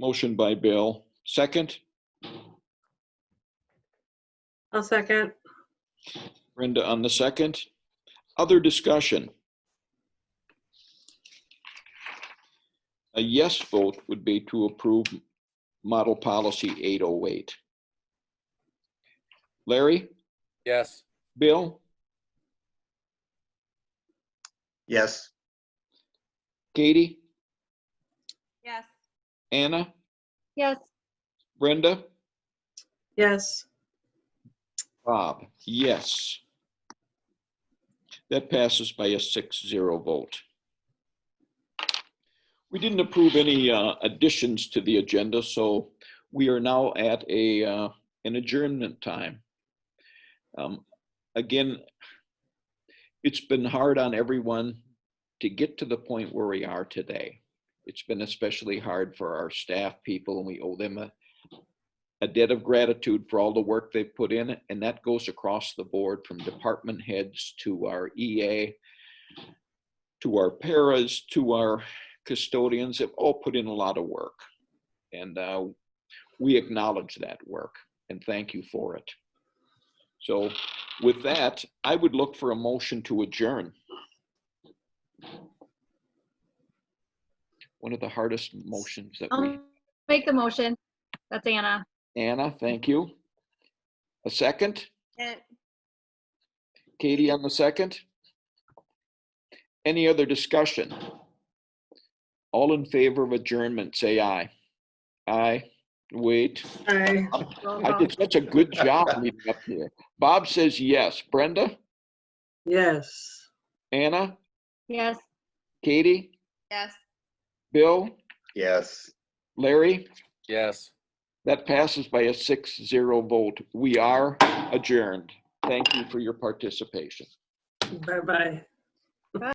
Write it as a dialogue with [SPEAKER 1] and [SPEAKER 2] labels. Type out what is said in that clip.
[SPEAKER 1] Motion by Bill, second.
[SPEAKER 2] I'll second.
[SPEAKER 1] Brenda on the second. Other discussion? A yes vote would be to approve Model Policy 808. Larry?
[SPEAKER 3] Yes.
[SPEAKER 1] Bill?
[SPEAKER 4] yes,
[SPEAKER 1] Katie?
[SPEAKER 5] Yes.
[SPEAKER 1] Anna?
[SPEAKER 5] Yes.
[SPEAKER 1] Brenda?
[SPEAKER 2] Yes.
[SPEAKER 1] Bob? Yes. That passes by a 6-0 vote. We didn't approve any uh, additions to the agenda, so we are now at a, uh, an adjournment time. Um, Again, it's been hard on everyone to get to the point where we are today. It's been especially hard for our staff people, and we owe them a a debt of gratitude for all the work they've put in, and that goes across the board from department heads to our EA, to our paras, to our custodians, have all put in a lot of work. And uh, we acknowledge that work and thank you for it. So with that, I would look for a motion to adjourn. One of the hardest motions that we,
[SPEAKER 5] I'll make the motion. That's Anna.
[SPEAKER 1] Anna, thank you. A second?
[SPEAKER 5] And
[SPEAKER 1] Katie on the second. Any other discussion? All in favor of adjournment, say aye. Aye. Wait,
[SPEAKER 2] Aye.
[SPEAKER 5] roll
[SPEAKER 1] I
[SPEAKER 5] call.
[SPEAKER 1] did such a good job leading up here. Bob says yes. Brenda,
[SPEAKER 2] Yes.
[SPEAKER 1] Anna,
[SPEAKER 5] Yes.
[SPEAKER 1] Katie,
[SPEAKER 5] Yes.
[SPEAKER 1] Bill,
[SPEAKER 4] yes.
[SPEAKER 1] Larry.
[SPEAKER 3] Yes.
[SPEAKER 1] That passes by a six zero vote. We are adjourned. Thank you for your participation.
[SPEAKER 2] Bye-bye.